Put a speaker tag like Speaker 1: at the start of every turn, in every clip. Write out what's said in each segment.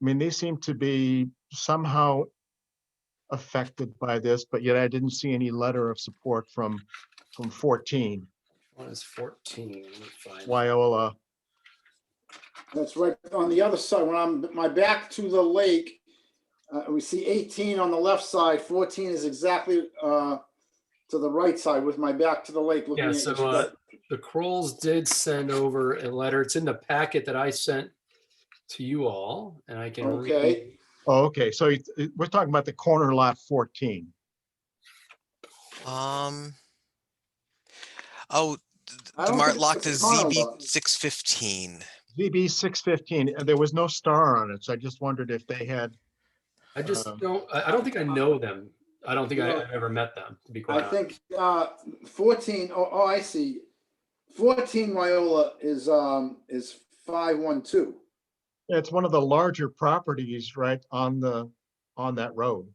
Speaker 1: I mean, they seem to be somehow affected by this, but yet I didn't see any letter of support from, from 14,
Speaker 2: One is fourteen. Let me find it.
Speaker 1: Wyola.
Speaker 3: That's right on the other side. When I'm, my back to the lake, uh, we see 18 on the left side, 14 is exactly uh, to the right side with my back to the lake. looking
Speaker 2: Yeah,
Speaker 3: at
Speaker 2: so
Speaker 3: each other.
Speaker 2: uh, the Crolls did send over a letter. It's in the packet that I sent to you all, and I can. read-
Speaker 3: Okay.
Speaker 1: Oh, okay, so it- it- we're talking about the corner lot 14.
Speaker 4: Um. Oh, th-
Speaker 3: I
Speaker 4: the
Speaker 3: don't
Speaker 4: Mart
Speaker 3: think it's
Speaker 4: locked is
Speaker 3: Susquehanna
Speaker 4: ZB
Speaker 3: lot.
Speaker 4: six fifteen.
Speaker 1: ZB 615, and uh, there was no star on it, so I just wondered if they had,
Speaker 2: I just
Speaker 1: Um,
Speaker 2: don't, I, I don't think I know them. I don't think I,
Speaker 3: No.
Speaker 2: I've ever met them, to be
Speaker 3: I
Speaker 2: quite honest.
Speaker 3: think uh, 14, oh, oh, I see. 14 Wyola is, um, is 512.
Speaker 1: it's one of the larger properties, right, on the, on that road.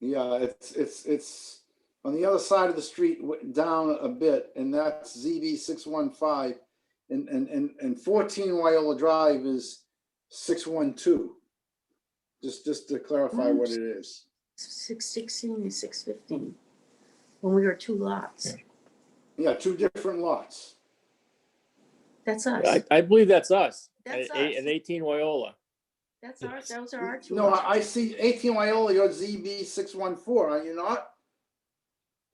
Speaker 3: Yeah, it's, it's, it's on the other side of the street, w- down a bit, and that's ZB six one five. And, and, and, and fourteen Wyola Drive is six one two. Just, just to clarify what it is.
Speaker 5: Six sixteen and six fifteen, when we were two lots.
Speaker 3: Yeah, two different lots.
Speaker 5: That's us.
Speaker 6: I, I believe that's us.
Speaker 5: That's
Speaker 6: At eight-
Speaker 5: us.
Speaker 6: at eighteen Wyola.
Speaker 5: That's our, those are our two
Speaker 3: No,
Speaker 5: lots.
Speaker 3: I, I see eighteen Wyola, you're ZB six one four, are you not?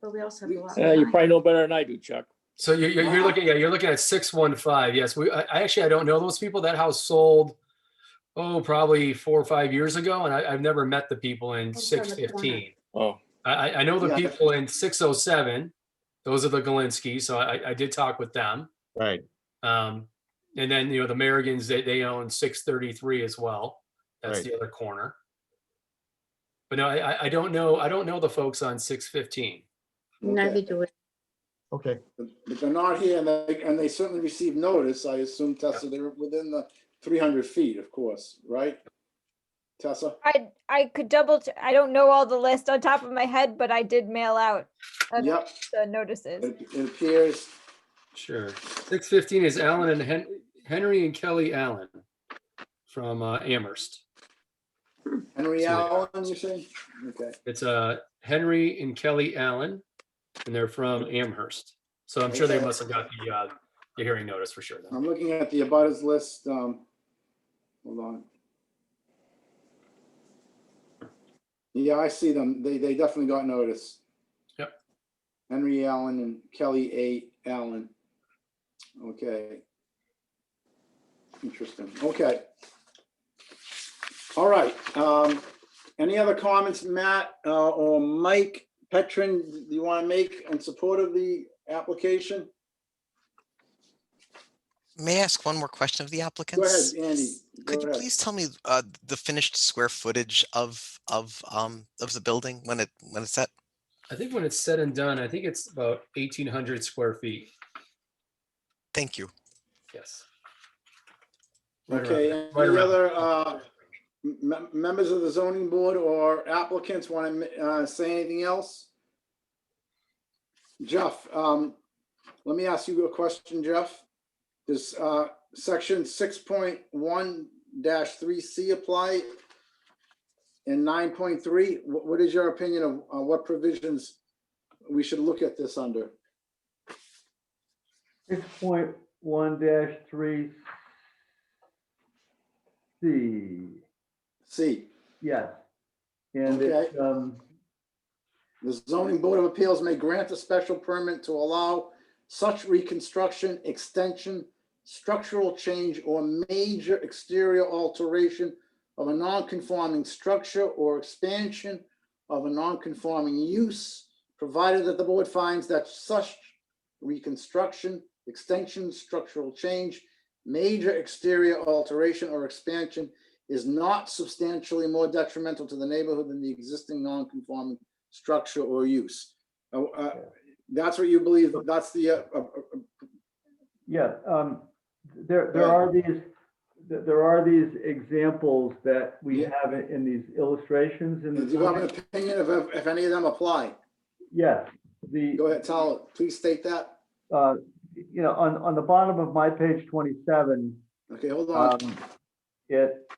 Speaker 5: But we also have a lot.
Speaker 6: Uh, you
Speaker 5: behind.
Speaker 6: probably know better than I do, Chuck.
Speaker 2: So you're, you're, you're looking, yeah, you're looking at six one five. Yes, we, I, I actually, I don't know those people. That house sold, oh, probably four or five years ago, and I, I've never met the people in
Speaker 5: Those are on
Speaker 2: six
Speaker 5: the
Speaker 2: fifteen.
Speaker 6: Oh,
Speaker 2: I, I- I know the
Speaker 3: Yeah.
Speaker 2: people in six oh seven. Those are the Galinsky, so I, I did talk with them.
Speaker 1: Right.
Speaker 2: Um, and then, you know, the Marigans, they, they own six thirty-three as well. That's
Speaker 1: Right.
Speaker 2: the other corner. But no, I, I- I don't know, I don't know the folks on six fifteen.
Speaker 5: Neither do we.
Speaker 1: Okay,
Speaker 3: But but they're not here, and they, and they certainly received notice, I assume, Tessa, they were within the three hundred feet, of course, right? Tessa?
Speaker 7: I, I could double, ch- I don't know all the list on top of my head, but I did mail out uh,
Speaker 3: Yep,
Speaker 7: the notices.
Speaker 3: it it appears,
Speaker 2: Sure. Six fifteen is Allen and Hen- Henry and Kelly Allen from uh, Amherst.
Speaker 3: Henry
Speaker 2: So-
Speaker 3: Allen, you say? Okay,
Speaker 2: It's uh, Henry and Kelly Allen, and they're from Amherst. So I'm sure they
Speaker 3: Okay. Um,
Speaker 2: must have got the, uh, the hearing notice for sure. then.
Speaker 3: I'm looking at the abutters list, um, hold on. Yeah, I see them, they, they definitely got notice.
Speaker 2: Yep.
Speaker 3: Henry Allen and Kelly A. Allen. Okay. Interesting, okay. All right, um, any other comments, Matt, uh, or Mike Petrin, do you want to make in support of the application?
Speaker 4: May I ask one more question of the
Speaker 3: Go ahead,
Speaker 4: applicants?
Speaker 3: Andy. Go
Speaker 4: Could you
Speaker 3: ahead.
Speaker 4: please tell me uh, the finished square footage of of um of the building when it when it's set?
Speaker 2: I think when it's said and done, I think it's about eighteen hundred square feet.
Speaker 4: Thank you.
Speaker 2: Yes. Right around
Speaker 3: Okay,
Speaker 2: there,
Speaker 3: any
Speaker 2: right around
Speaker 3: other
Speaker 2: there.
Speaker 3: uh, mem- members of the zoning board or applicants want to say anything else? Jeff, um, let me ask you a question, Jeff. Does uh, section 6.1-3C apply? And 9.3, Wh- what is your opinion of uh, what provisions we should look at this under?
Speaker 8: Six point one dash three C,
Speaker 3: C,
Speaker 8: yes. And it's, um,
Speaker 3: The zoning board of appeals may grant a special permit to allow such reconstruction, extension, structural change, or major exterior alteration of a non-conforming structure or expansion of a non-conforming use, provided that the board finds that such reconstruction, extension, structural change, major exterior alteration or expansion is not substantially more detrimental to the neighborhood than the existing non-conforming structure or use. Uh, uh, That's what you believe, that's the, uh, uh, uh,
Speaker 8: yeah, um, there, there are these, there there are these examples that we
Speaker 3: Yeah.
Speaker 8: have in- in these illustrations in
Speaker 3: do
Speaker 8: the.
Speaker 3: you have an opinion of if if any of them apply?
Speaker 8: Yes, the.
Speaker 3: Go ahead, Tal, please state that.
Speaker 8: uh, you know, on, on the bottom of my page twenty-seven,
Speaker 3: Okay, hold on.
Speaker 8: um, it,